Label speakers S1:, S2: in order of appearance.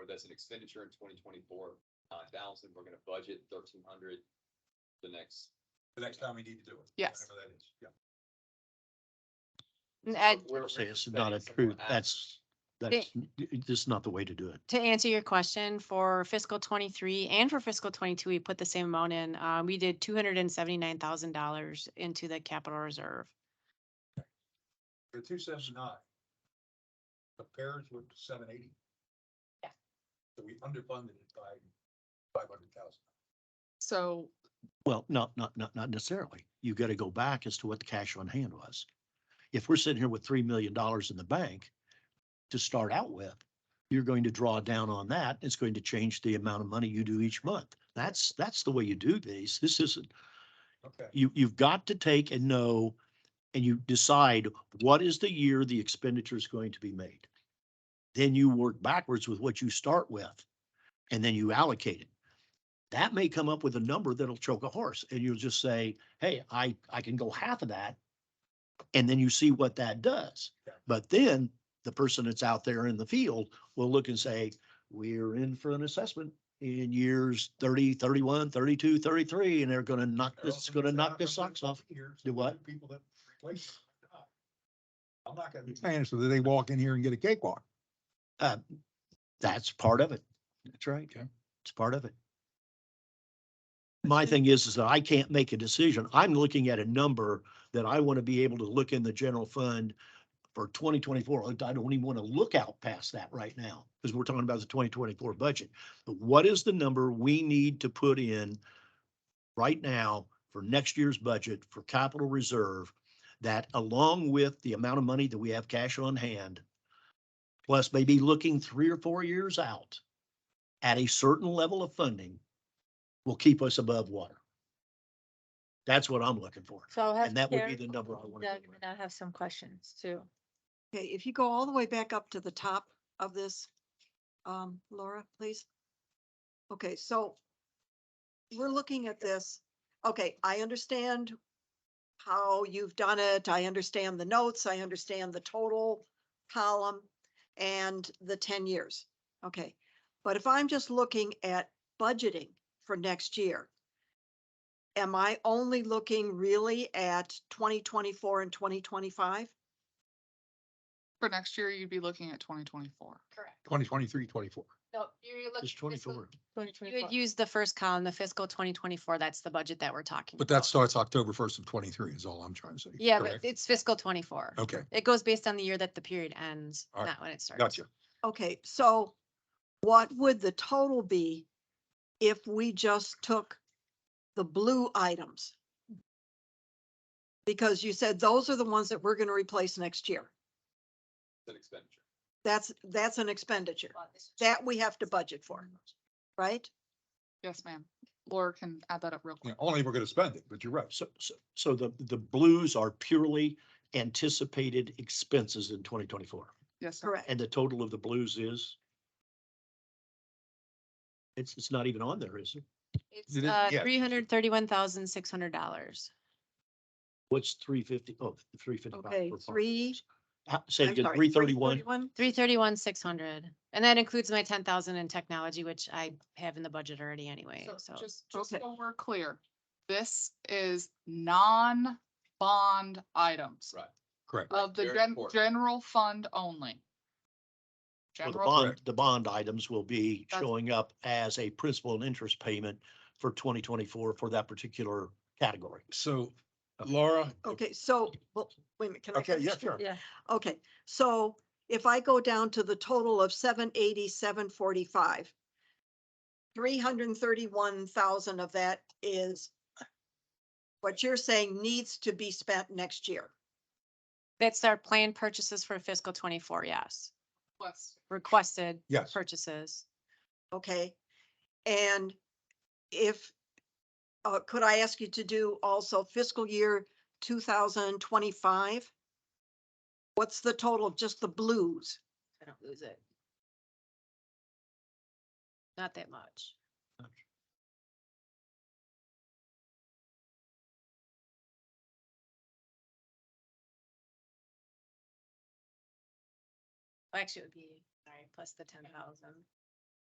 S1: as an expenditure in twenty twenty-four, nine thousand, we're gonna budget thirteen hundred the next.
S2: the next time we need to do it.
S3: Yes.
S2: Whatever that is, yeah.
S3: And Ed,
S1: We're-
S4: Say it's
S1: we're
S4: not a
S1: expecting
S4: truth,
S1: somewhere
S4: that's, that's, this is not the way to do it.
S3: to answer your question, for fiscal twenty-three and for fiscal twenty-two, we put the same amount in. Uh, we did two hundred and seventy-nine thousand dollars into the capital reserve.
S2: The two seventy-nine. Compares with seven eighty.
S3: Yeah.
S2: So we underfunded it by five hundred thousand.
S5: So
S4: Well, not, not, not, not necessarily. You gotta go back as to what the cash on hand was. If we're sitting here with three million dollars in the bank to start out with, you're going to draw down on that. It's going to change the amount of money you do each month. That's, that's the way you do these. This isn't,
S2: Okay.
S4: you, you've got to take and know and you decide what is the year the expenditure is going to be made. Then you work backwards with what you start with and then you allocate it. That may come up with a number that'll choke a horse and you'll just say, hey, I, I can go half of that. And then you see what that does.
S2: Yeah.
S4: But then the person that's out there in the field will look and say, we're in for an assessment in years 30, 31, 32, 33, and they're gonna knock
S2: They're
S4: this,
S2: also
S4: gonna
S2: gonna
S4: knock
S2: knock
S4: this
S2: on
S4: socks off.
S2: Here's
S4: Do what?
S2: the People that replace. it. I'm not gonna be.
S6: saying so that they walk in here and get a cakewalk.
S4: That's part of it. That's right.
S6: Okay.
S4: It's part of it. My thing is, is that I can't make a decision. I'm looking at a number that I want to be able to look in the general fund for twenty twenty-four. I don't even want to look out past that right now because we're talking about the twenty twenty-four budget. But what is the number we need to put in right now for next year's budget for capital reserve? That along with the amount of money that we have cash on hand, plus maybe looking three or four years out at a certain level of funding will keep us above water. That's what I'm looking for.
S7: So I'll have.
S4: And that would be
S7: Karen
S4: the number I want to.
S7: Doug, and I have some questions too.
S8: Okay, if you go all the way back up to the top of this, um, Laura, please. Okay, so we're looking at this. Okay, I understand how you've done it. I understand the notes. I understand the total column and the ten years. Okay, but if I'm just looking at budgeting for next year, am I only looking really at twenty twenty-four and twenty twenty-five?
S5: for next year, you'd be looking at twenty twenty-four.
S3: Correct.
S6: 2023, 24.
S3: No, you're
S4: It's twenty-four.
S3: You would use the first column, the fiscal twenty twenty-four, that's the budget that we're talking.
S6: But that
S3: about.
S6: starts October 1st of 23 is all I'm trying to say.
S3: Yeah, but
S6: correct?
S3: it's fiscal twenty-four.
S6: Okay,
S3: It goes based on the year that the period ends,
S6: All right.
S3: not when it starts.
S6: gotcha.
S8: Okay, so what would the total be if we just took the blue items? Because you said those are the ones that we're gonna replace next year.
S1: It's an expenditure.
S8: That's, that's an expenditure that we have to budget for, right?
S5: Yes, ma'am. Laura can add that up real
S6: Yeah,
S5: quick.
S6: Only we're going to spend it, but you're right.
S4: So, so, so the, the blues are purely anticipated expenses in twenty twenty-four.
S5: Yes, sir.
S8: Correct.
S4: And the total of the blues is? It's, it's not even on there, is it?
S3: It's
S6: It is-
S3: uh,
S6: yeah.
S3: three hundred thirty-one thousand, six hundred dollars.
S4: What's three fifty? Oh, three fifty-five.
S8: Okay, three-
S4: Say it
S8: I'm
S4: again,
S8: sorry,
S4: three thirty-one?
S8: 331?
S3: Three thirty-one, six hundred. And that includes my ten thousand in technology, which I have in the budget already anyway, so.
S5: So just, just
S8: Okay.
S5: so we're clear, this is non-bond items
S1: Right.
S6: Correct.
S5: of the
S1: Very
S5: gen-
S1: important.
S5: general fund only.
S4: Well, the
S5: General
S4: bond, the bond items will be
S5: That's-
S4: showing up as a principal and interest payment for twenty twenty-four for that particular category.
S6: So Laura,
S8: Okay, so, well, wait a minute, can I?
S6: okay, yeah,
S8: finish?
S6: sure.
S7: Yeah.
S8: Okay, so if I go down to the total of seven eighty, seven forty-five, three hundred and thirty-one thousand of that is what you're saying needs to be spent next year.
S3: That's our planned purchases for fiscal twenty-four, yes.
S5: request.
S3: Requested
S6: Yes.
S3: purchases.
S8: Okay, and if, uh, could I ask you to do also fiscal year two thousand twenty-five? What's the total of just the blues?
S7: I don't lose it.
S3: Not that much. Actually, it would be, sorry, plus the ten thousand.